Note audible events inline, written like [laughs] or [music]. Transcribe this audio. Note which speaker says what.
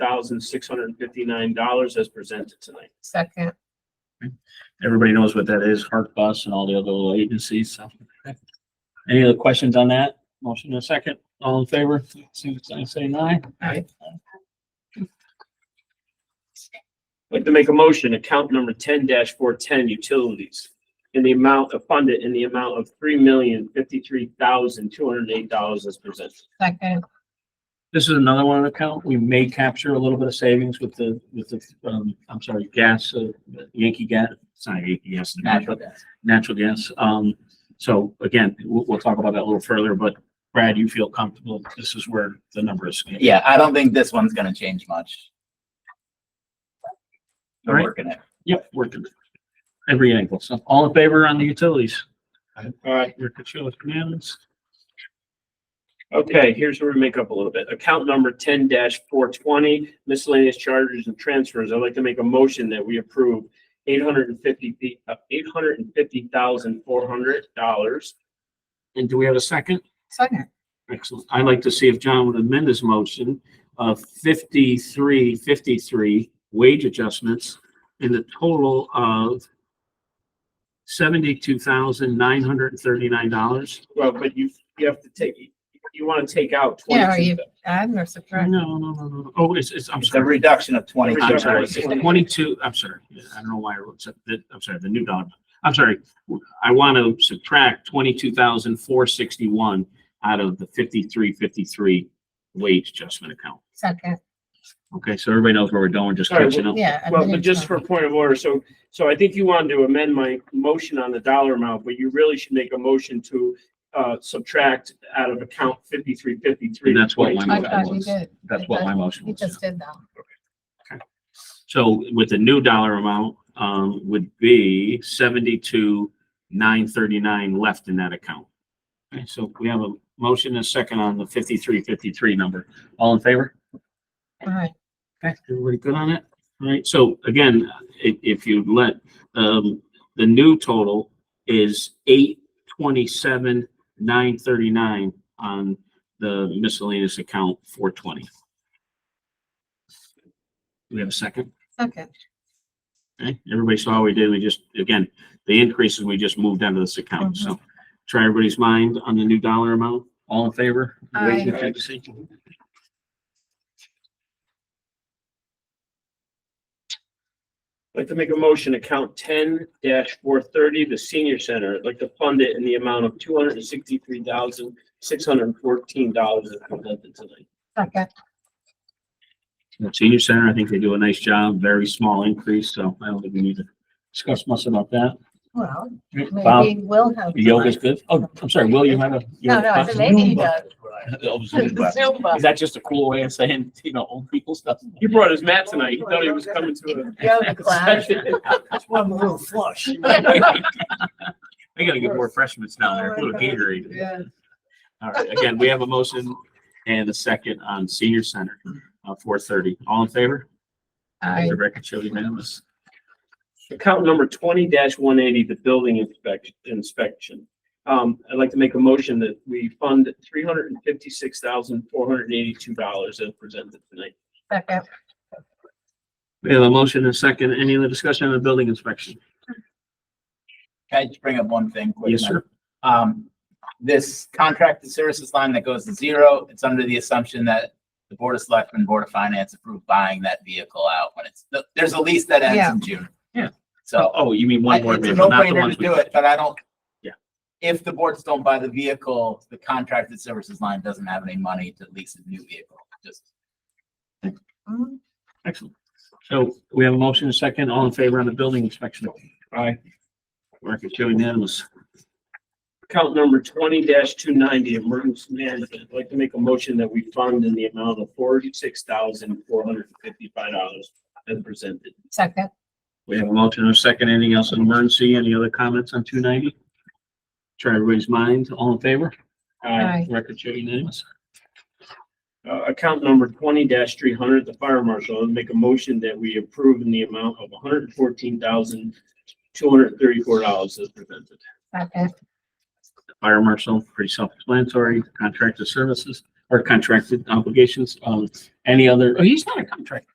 Speaker 1: thousand six hundred and fifty-nine dollars as presented tonight.
Speaker 2: Second,
Speaker 3: Everybody knows what that is, Hark Bus and all the other little agencies, so. Any other questions on that? Motion in a second, all in favor, signify by saying aye.
Speaker 2: Aye.
Speaker 1: I'd like to make a motion, account number ten four ten utilities. In the amount of funded in the amount of three million fifty-three thousand two hundred and eight dollars as presented.
Speaker 2: second,
Speaker 3: This is another one account. We may capture a little bit of savings with the, with the, um, I'm sorry, gas, uh, Yankee gas, it's not Yankee gas.
Speaker 2: natural gas.
Speaker 3: Natural gas. Um, so again, we'll, we'll talk about that a little further, but Brad, you feel comfortable? This is where the number is.
Speaker 4: Yeah, I don't think this one's gonna change much.
Speaker 3: All
Speaker 4: We're
Speaker 3: right.
Speaker 4: working it.
Speaker 3: Yep, working every angle. So all in favor on the utilities?
Speaker 1: All right,
Speaker 3: Your Kachula commands.
Speaker 1: okay, here's where we make up a little bit. Account number ten four twenty miscellaneous charges and transfers. I'd like to make a motion that we approve eight hundred and fifty, uh, eight hundred and fifty thousand four hundred dollars.
Speaker 3: And do we have a second?
Speaker 2: Second,
Speaker 3: Excellent. I'd like to see if John would amend his motion of fifty-three, fifty-three wage adjustments in the total of seventy-two thousand nine hundred and thirty-nine dollars.
Speaker 1: Well, but you, you have to take, you want to take out
Speaker 2: Yeah, are
Speaker 1: twenty-two.
Speaker 2: add or
Speaker 3: No,
Speaker 2: subtract?
Speaker 3: no, no, no. no. Oh, it's, it's, I'm
Speaker 4: It's a
Speaker 3: sorry.
Speaker 4: reduction of twenty.
Speaker 3: I'm
Speaker 1: reduction.
Speaker 3: sorry. It's Twenty-two, I'm sorry. I don't know why I wrote, sub- that- I'm sorry, the new dollar. I'm sorry. I want to subtract twenty-two thousand four sixty-one out of the fifty-three, fifty-three wage adjustment account.
Speaker 2: Second,
Speaker 3: Okay, so everybody knows where we're going, just
Speaker 1: Sorry,
Speaker 3: catching up.
Speaker 2: yeah. I
Speaker 1: Well,
Speaker 2: mean,
Speaker 1: but just for point of order, so, so I think you wanted to amend my motion on the dollar amount, but you really should make a motion to uh, subtract out of account fifty-three fifty-three.
Speaker 3: And that's what my
Speaker 2: I
Speaker 3: motion
Speaker 2: thought you
Speaker 3: was.
Speaker 2: did.
Speaker 3: That's what my motion
Speaker 2: You
Speaker 3: was. yeah.
Speaker 2: just did though.
Speaker 3: So with the new dollar amount, um, would be seventy-two, nine thirty-nine left in that account. Okay, so we have a motion and a second on the fifty-three, fifty-three number. All in favor?
Speaker 2: All right,
Speaker 3: Okay, everybody good on it? All right, so again, if, if you let, um, the new total is eight twenty-seven, nine thirty-nine on the miscellaneous account four twenty. We have a second?
Speaker 2: second,
Speaker 3: Okay, everybody saw what we did. We just, again, the increases, we just moved out of this account, so try everybody's mind on the new dollar amount. All in favor? Raise your
Speaker 1: Aye.
Speaker 3: hand to see.
Speaker 1: I'd like to make a motion, account ten four thirty, the senior center, I'd like to fund it in the amount of two hundred and sixty-three thousand, six hundred and fourteen dollars as presented tonight.
Speaker 2: second,
Speaker 3: The Senior Center, I think they do a nice job, very small increase, so I don't think we need to discuss much about that.
Speaker 2: well,
Speaker 3: Bob,
Speaker 2: maybe we'll have.
Speaker 3: yoga's good. Oh, I'm sorry, Will, you have a. you
Speaker 2: No,
Speaker 3: have a
Speaker 2: no, I said
Speaker 3: question?
Speaker 2: maybe he does.
Speaker 3: Oh, Zumba.
Speaker 2: Zumba.
Speaker 3: Is that just a cool way of saying, you know, old people stuff?
Speaker 1: He brought his mat tonight, he thought he was coming to
Speaker 2: Yoga
Speaker 1: a
Speaker 2: class.
Speaker 1: session.
Speaker 3: [laughs] We gotta get more freshmen down there, put a Gatorade.
Speaker 2: [laughs] Yeah.
Speaker 3: All right, again, we have a motion and a second on senior center, uh, four thirty. All in favor?
Speaker 2: I,
Speaker 3: The record show unanimous.
Speaker 1: [laughs] Account number twenty one eighty, the building inspection, inspection. Um, I'd like to make a motion that we fund three hundred and fifty-six thousand, four hundred and eighty-two dollars as presented tonight.
Speaker 2: second,
Speaker 3: We have a motion and a second. Any other discussion on the building inspection?
Speaker 4: Can I just bring up one thing quick?
Speaker 3: Yes,
Speaker 4: Mike?
Speaker 3: sir.
Speaker 4: Um, this contracted services line that goes to zero, it's under the assumption that the Board of Selectmen, Board of Finance approved buying that vehicle out when it's, there's a lease that ends
Speaker 2: Yeah.
Speaker 4: in June.
Speaker 3: Yeah.
Speaker 4: So
Speaker 3: Oh, you mean
Speaker 4: I-
Speaker 3: one more
Speaker 4: it's a
Speaker 3: vehicle, not the
Speaker 4: no-brainer
Speaker 3: ones
Speaker 4: to
Speaker 3: we.
Speaker 4: do it, but I don't.
Speaker 3: Yeah.
Speaker 4: If the boards don't buy the vehicle, the contracted services line doesn't have any money to lease a new vehicle, just.
Speaker 2: Mm,
Speaker 3: Excellent. So we have a motion and a second. All in favor on the building inspection? Aye. Record show unanimous.
Speaker 1: Account number twenty two ninety, emergency management. I'd like to make a motion that we fund in the amount of forty-six thousand, four hundred and fifty-five dollars as presented.
Speaker 2: second,
Speaker 3: We have a motion and a second. Anything else on emergency? Any other comments on two ninety? Try everybody's mind. All in favor?
Speaker 2: Aye.
Speaker 3: Record show unanimous.
Speaker 1: Uh, account number twenty three hundred, the fire marshal, I'll make a motion that we approve in the amount of hundred and fourteen thousand, two hundred and thirty-four dollars as presented.
Speaker 2: second,
Speaker 3: fire marshal, pretty self-explanatory, contracted services or contracted obligations. Um, any other, oh, he's not a contractor.